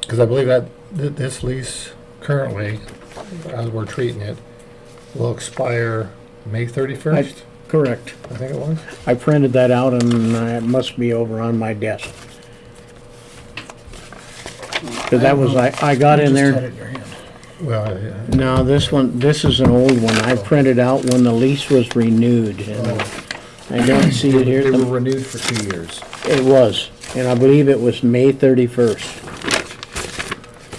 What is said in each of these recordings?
Because I believe that, th- this lease currently, as we're treating it, will expire May thirty-first, Correct. I think it was. I printed that out and uh, it must be over on my desk. Cause that was, I, I got in there, Well, yeah, no, this one, this is an old one. I printed out when the lease was renewed and I don't see it here. They were The- renewed for two years. It was, and I believe it was May thirty-first.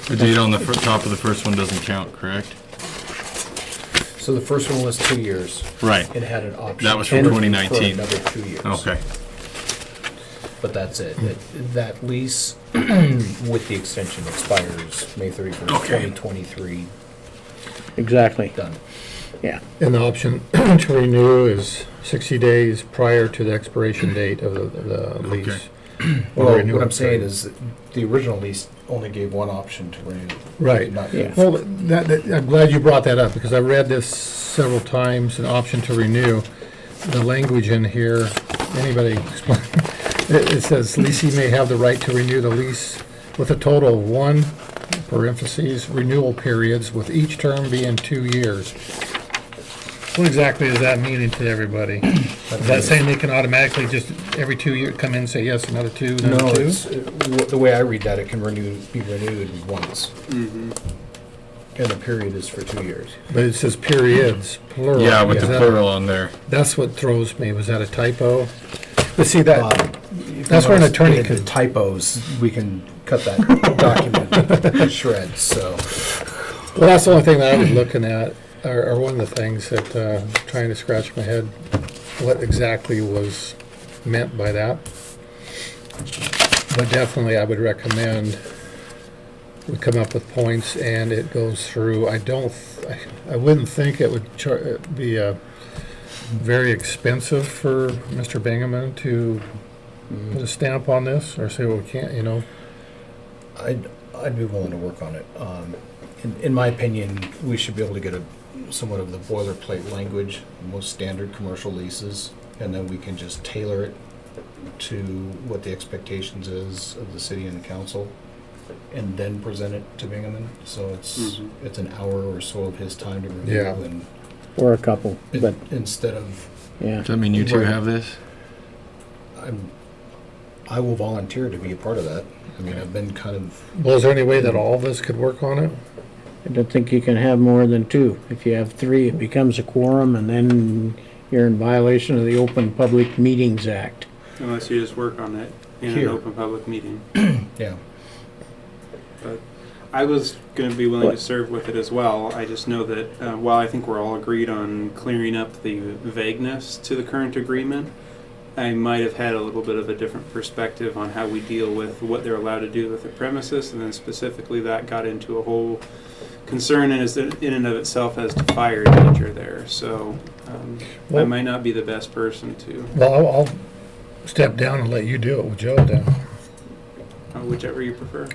The date on the fir- top of the first one doesn't count, correct? So the first one was two years. Right. It had an option. That was for to- 2019. For another two years. Okay. But that's it. Hmm. That- That lease with the extension expires May thirty-first, Okay. twenty twenty-three, Exactly, done. yeah. and the option to renew is sixty days prior to the expiration date of the- of the lease. Or Well, renew what I'm it. saying is, that the original lease only gave one option to renew. Right. Not- Yeah. Well, that, that, I'm glad you brought that up, because I read this several times, an option to renew. The language in here, anybody explain? It, it says leasing may have the right to renew the lease with a total of one, parentheses, renewal periods, with each term being two years. What exactly is that meaning to everybody? Is that saying they can automatically just, every two year, come in and say, yes, another two, No, another two? it's, it- w- the way I read that, it can renew, be renewed once. Mm-hmm. And the period is for two years. But it says periods, plural. Yeah, with Is the that- plural on there. That's what throws me, was that a typo? But see, that, Um, Uh, if That's you where an notice, attorney we did the could- Typos, we can cut that document to shreds, so. well, that's the only thing that I was looking at, or, or one of the things that, uh, trying to scratch my head, what exactly was meant by that. But definitely, I would recommend we come up with points and it goes through, I don't, th- I- I wouldn't think it would char, be, uh, very expensive for Mr. Bingaman to put a stamp on this, or say, well, we can't, you know, I'd, I'd be willing to work on it. Um, in, in my opinion, we should be able to get a, somewhat of the boilerplate language, most standard commercial leases, and then we can just tailor it to what the expectations is of the city and the council, and then present it to Bingaman. So it's, it's an hour or so of his time to review Yeah. and, Or a couple, but, and instead of, yeah. Does that mean you two Right. have this? I'm, I will volunteer to be a part of that. I mean, I've been kind of Well, is there any way that all of us could work on it? I don't think you can have more than two. If you have three, it becomes a quorum, and then you're in violation of the Open Public Meetings Act. Unless you just work on it in an Here. open public meeting. Yeah. But I was going to be willing to serve with it as well. I just know that uh, while I think we're all agreed on clearing up the vagueness to the current agreement, I might have had a little bit of a different perspective on how we deal with what they're allowed to do with the premises, and then specifically that got into a whole concern in, is- in and of itself as to fire danger there. So um, I Well- might not be the best person to, Well, I'll, I'll step down and let you do it with Joe down. uh, whichever you prefer.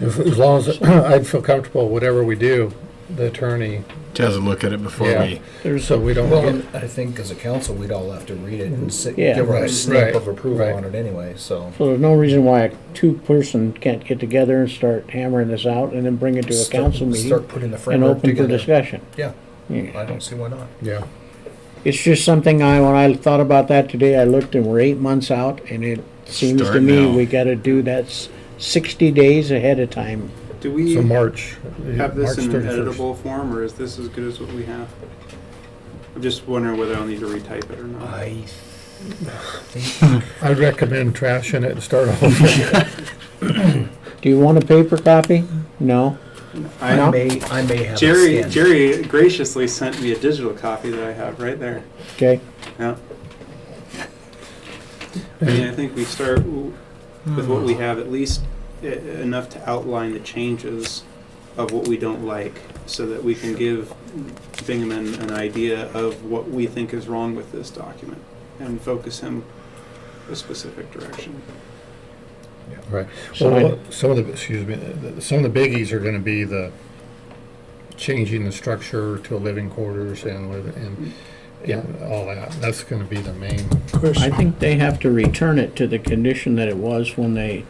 As as long as, I'd feel comfortable, whatever we do, the attorney, Doesn't look at it before Yeah. we. There's, so we don't Well, get, and I think as a council, we'd all have to read it and sit, Yeah. give our Right, stamp right, of approval right. on it anyway, so. so there's no reason why a two-person can't get together and start hammering this out, and then bring it to a start- council meeting Start putting the and framework open for together. discussion. Yeah, Yeah. I don't see why not. yeah. It's just something I, when I thought about that today, I looked and we're eight months out, and it seems to Start me now. we gotta do that s- sixty days ahead of time. Do we? So March, have this March in an 31st. editable form, or is this as good as what we have? I'm just wondering whether I'll need to retype it or not. I think, I'd recommend trashing it and start over. Do you want a paper copy? No? I may, I may have Jerry, a stamp. Jerry graciously sent me a digital copy that I have right there. Okay, Yeah. I mean, I think we start w- with what we have, at least e- enough to outline the changes of what we don't like, so that we can give Bingaman an idea of what we think is wrong with this document, and focus him a specific direction. Right. So Well, some of the, excuse me, the- some of the biggies are gonna be the changing the structure to living quarters and, liv- and, yeah, all that. That's gonna be the main. I think they have to return it to the condition that it was when they